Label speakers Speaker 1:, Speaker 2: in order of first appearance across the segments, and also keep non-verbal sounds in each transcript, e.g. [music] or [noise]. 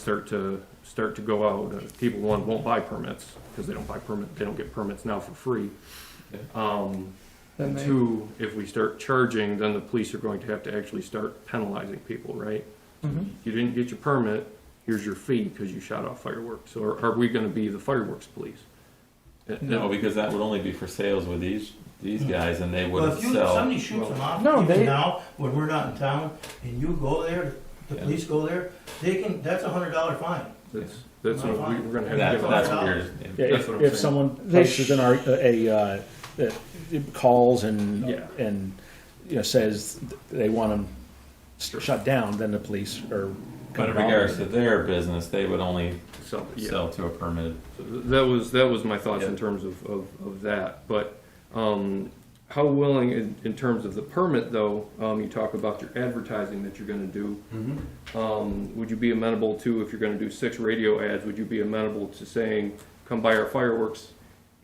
Speaker 1: start to, start to go out. Uh, People, one, won't buy permits, because they don't buy permit, they don't get permits now for free.
Speaker 2: Yeah.
Speaker 1: Um,
Speaker 3: Then they,
Speaker 1: two, if we start charging, then the police are going to have to actually start penalizing people, right?
Speaker 3: Mhm.
Speaker 1: You didn't get your permit, here's your fee, because you shot off fireworks. So are are we gonna be the fireworks police? Uh,
Speaker 2: No, because that would only be for sales with these these guys, and they
Speaker 4: Well,
Speaker 2: wouldn't
Speaker 4: if you,
Speaker 2: sell.
Speaker 4: somebody shoots them off,
Speaker 3: No, they-
Speaker 4: even now, when we're not in town, and you go there, the
Speaker 2: Yeah.
Speaker 4: police go there, they can, that's a hundred dollar fine.
Speaker 1: That's, that's what we- we're gonna have to
Speaker 2: That's
Speaker 1: give
Speaker 2: that's
Speaker 1: up.
Speaker 4: what-
Speaker 2: weird.
Speaker 5: Yeah,
Speaker 1: That's
Speaker 5: if,
Speaker 1: what I'm
Speaker 5: if
Speaker 1: saying.
Speaker 5: someone
Speaker 3: They
Speaker 5: posts an ar- a, a uh, uh, calls and
Speaker 1: Yeah.
Speaker 5: and you know says they want them shut down, then the police are.
Speaker 2: But in regards to their business, they would only
Speaker 1: So, yeah.
Speaker 2: sell to a permitted.
Speaker 1: So th- That was, that was my thoughts in
Speaker 2: Yeah.
Speaker 1: terms of, of, of that, but, um, how willing, in, in terms of the permit though, um, you talk about your advertising that you're gonna do.
Speaker 4: Mm-hmm.
Speaker 1: Um, would you be amenable to, if you're gonna do six radio ads, would you be amenable to saying, come buy our fireworks?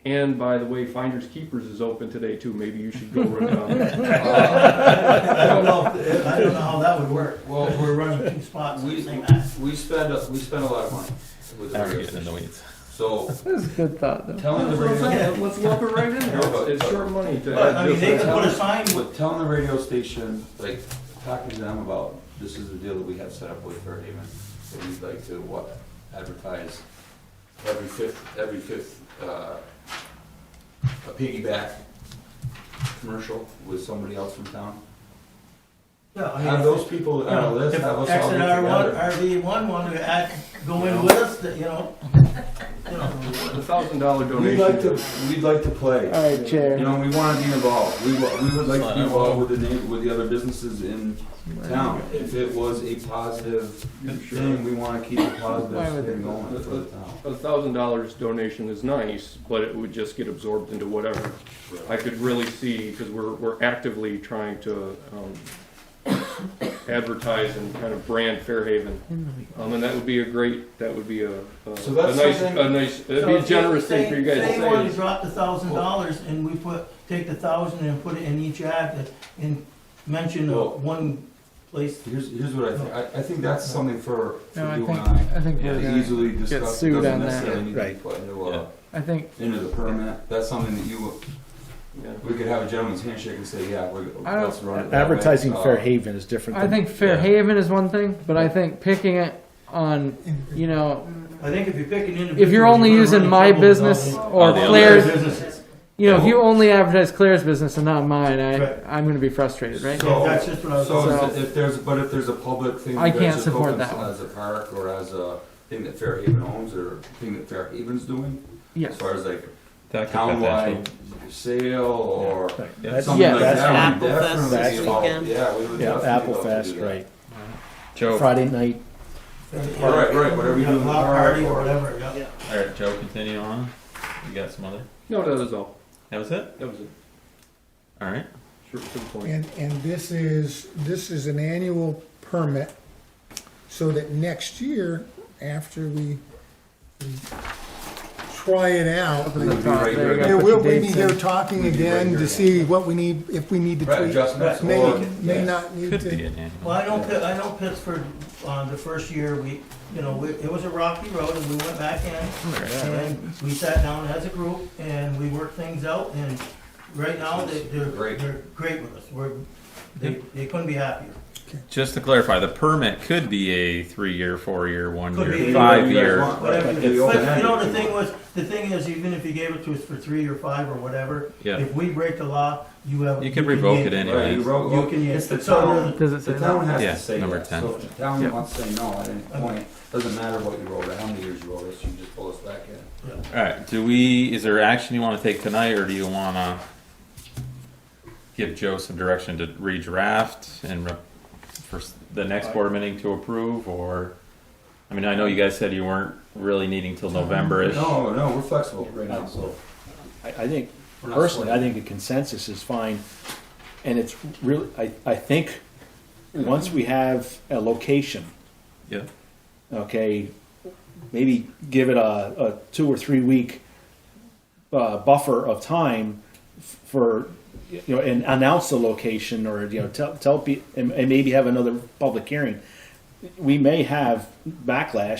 Speaker 1: And by the way, Finders Keepers is open today too, maybe you should go run down.
Speaker 4: I don't know, if- I don't know how that would work. Well, we're running two spots at the
Speaker 6: We,
Speaker 4: same time.
Speaker 6: we spend, a- we spend a lot of money with the
Speaker 2: Now we're
Speaker 6: radio
Speaker 2: getting in the
Speaker 6: station.
Speaker 2: weeds.
Speaker 6: So
Speaker 3: that's a good thought, though.
Speaker 6: telling the radio,
Speaker 1: [laughs] Let's lump it right in there, It's- it's short money to.
Speaker 4: But, I mean, they
Speaker 1: advertise.
Speaker 4: could put a sign with,
Speaker 6: with telling the radio station, like, talking to them about, this is the deal that we have set up with Fairhaven, that we'd like to, what, advertise every fifth, every fifth, uh, a piggyback commercial with somebody else from town.
Speaker 4: yeah, I mean.
Speaker 6: Have those people that are on the list,
Speaker 4: If
Speaker 6: have us
Speaker 4: X
Speaker 6: all
Speaker 4: and
Speaker 6: get
Speaker 4: R one,
Speaker 6: together.
Speaker 4: RV one wanted to act, go in with us, that, you know, you know,
Speaker 1: A thousand dollar
Speaker 6: We'd
Speaker 1: donation.
Speaker 6: like to, we'd like to play.
Speaker 3: All right,
Speaker 6: You
Speaker 3: Chair.
Speaker 6: know, we wanna be involved, we, wa- we would like to be involved with the neigh with the other businesses in town. If it was a positive thing, we wanna keep a
Speaker 3: Why would
Speaker 6: positive
Speaker 3: they-
Speaker 6: thing going for the town.
Speaker 1: A thousand dollars donation is nice, but it would just get absorbed into whatever. I could really see, because we're, we're actively trying to, um, advertise and kind of brand Fairhaven. Um, and that would be a great, that would be a, a
Speaker 6: So
Speaker 1: a
Speaker 6: that's
Speaker 1: nice,
Speaker 6: something-
Speaker 1: a nice, it'd
Speaker 4: So
Speaker 1: be a
Speaker 4: if you-
Speaker 1: generous thing for you guys
Speaker 4: say- Say one,
Speaker 1: to
Speaker 4: you
Speaker 1: say.
Speaker 4: drop the thousand dollars and we put, take the thousand and put it in each ad that- and mention uh,
Speaker 6: Well-
Speaker 4: one place.
Speaker 6: Here's, here's what I think, I, I think that's something for, for
Speaker 3: No, I
Speaker 6: you
Speaker 3: think,
Speaker 6: and I.
Speaker 3: I think we're
Speaker 6: To
Speaker 3: gonna,
Speaker 6: easily discuss,
Speaker 3: sued
Speaker 6: it
Speaker 3: on
Speaker 6: doesn't
Speaker 3: that.
Speaker 6: necessarily need to be
Speaker 5: Right.
Speaker 6: put into, uh,
Speaker 3: I think,
Speaker 6: into the permit, that's something that you,
Speaker 1: Yeah.
Speaker 6: we could have a gentleman's handshake and say, yeah, we're,
Speaker 3: I don't-
Speaker 6: let's run it. that way.
Speaker 5: Advertising
Speaker 6: Uh,
Speaker 5: Fairhaven is different.
Speaker 3: I
Speaker 5: Than,
Speaker 3: think Fair Haven is one thing, but I think picking it on, you know,
Speaker 4: I think if you pick an individual.
Speaker 3: if you're only
Speaker 4: gonna run
Speaker 3: using
Speaker 4: into
Speaker 3: my
Speaker 4: trouble with all
Speaker 3: business
Speaker 4: the-
Speaker 3: or
Speaker 2: Oh, the other
Speaker 3: Claire's,
Speaker 4: businesses.
Speaker 3: you know, if you only advertise Claire's business and not mine,
Speaker 4: Right.
Speaker 3: I, I'm gonna be frustrated, right?
Speaker 6: So-
Speaker 4: That's just what I was.
Speaker 6: So
Speaker 3: So-
Speaker 6: if- if there's, but if there's a public thing.
Speaker 3: I
Speaker 6: that
Speaker 3: can't
Speaker 6: should
Speaker 3: support
Speaker 6: open
Speaker 3: that one.
Speaker 6: As a park or as a thing that Fairhaven owns or thing that Fairhaven's doing, as
Speaker 3: Yes.
Speaker 6: far as like
Speaker 2: That could potentially-
Speaker 6: townwide sale or
Speaker 5: Right.
Speaker 2: Yeah.
Speaker 5: That's-
Speaker 6: something
Speaker 3: Yeah,
Speaker 6: like
Speaker 5: that's-
Speaker 6: that. we'd
Speaker 7: Apple Fest
Speaker 6: definitely
Speaker 5: this
Speaker 6: be involved.
Speaker 7: weekend.
Speaker 6: Yeah, we would
Speaker 5: yeah,
Speaker 6: definitely
Speaker 5: Apple
Speaker 6: love to
Speaker 5: Fest,
Speaker 6: do that.
Speaker 5: right?
Speaker 2: Joe, all
Speaker 5: Friday night.
Speaker 6: All right, right, whatever you do in the
Speaker 4: Block
Speaker 6: park
Speaker 4: party or
Speaker 6: or.
Speaker 4: whatever, yeah.
Speaker 2: right, Joe, continue on. You got some other.
Speaker 1: No, that was all,
Speaker 2: That was it.
Speaker 1: that was it,
Speaker 2: All right.
Speaker 1: short to the point.
Speaker 8: And, and this is, this is an annual permit, so that next year, after we we try it out,
Speaker 6: We'd be
Speaker 3: There
Speaker 6: right
Speaker 3: you
Speaker 6: here.
Speaker 3: go.
Speaker 8: then
Speaker 3: put
Speaker 8: we'll
Speaker 3: the
Speaker 8: we be
Speaker 3: dates
Speaker 8: here
Speaker 3: in.
Speaker 8: talking
Speaker 6: We'd be right
Speaker 8: again
Speaker 6: here.
Speaker 8: to see what we need, if we need to
Speaker 6: Right,
Speaker 8: tweak.
Speaker 6: adjustments or.
Speaker 8: May, may not need
Speaker 2: Could be
Speaker 8: to,
Speaker 2: an animal.
Speaker 4: Well, I know, Pitt- I know Pittsburgh, uh, the first year, we, you know, we- it was a rocky road, and we went back in, and we sat down as a group, and we worked things out, and right now, they, they're,
Speaker 6: Great.
Speaker 4: they're great with us, we're, they, they couldn't be happier.
Speaker 2: Just to clarify, the permit could be a three-year, four-year,
Speaker 4: Could be
Speaker 2: one-year,
Speaker 4: either
Speaker 2: five-year.
Speaker 4: Whatever,
Speaker 6: Like
Speaker 4: but,
Speaker 6: the
Speaker 4: you
Speaker 6: open-ended.
Speaker 4: know, the thing was, the thing is, even if you gave it to us for three or five or whatever,
Speaker 2: Yeah.
Speaker 4: if we break the law, you have.
Speaker 2: You can revoke
Speaker 4: yank
Speaker 2: it
Speaker 6: Right,
Speaker 2: anyway.
Speaker 6: you wrote-
Speaker 4: You can, yes,
Speaker 6: It's the
Speaker 4: it's all,
Speaker 6: town,
Speaker 3: Does it say
Speaker 6: the
Speaker 3: that?
Speaker 6: town has
Speaker 2: Yeah,
Speaker 6: to say
Speaker 2: number
Speaker 6: yes.
Speaker 2: 10.
Speaker 6: So if the town
Speaker 3: Yep.
Speaker 6: wants to say no at any point, doesn't matter what you wrote or how many years you wrote us, you just pull us back in.
Speaker 2: All right. Do we? Is there action you want to take tonight, or do you want to give Joe some direction to redraft and re- for s- the next board meeting to approve? Or, I mean, I know you guys said you weren't really needing till November-ish.
Speaker 6: No, no, we're flexible right now, so.
Speaker 5: I, I think
Speaker 6: we're not
Speaker 5: personally, I
Speaker 6: sweating.
Speaker 5: think the consensus is fine, and it's really. I I think once we have a location,
Speaker 2: Yeah.
Speaker 5: okay, maybe give it a, a two or three week uh, buffer of time f- for, you know, and announce the location or, you know, tell, tell people, and, and maybe have another public hearing. We may have backlash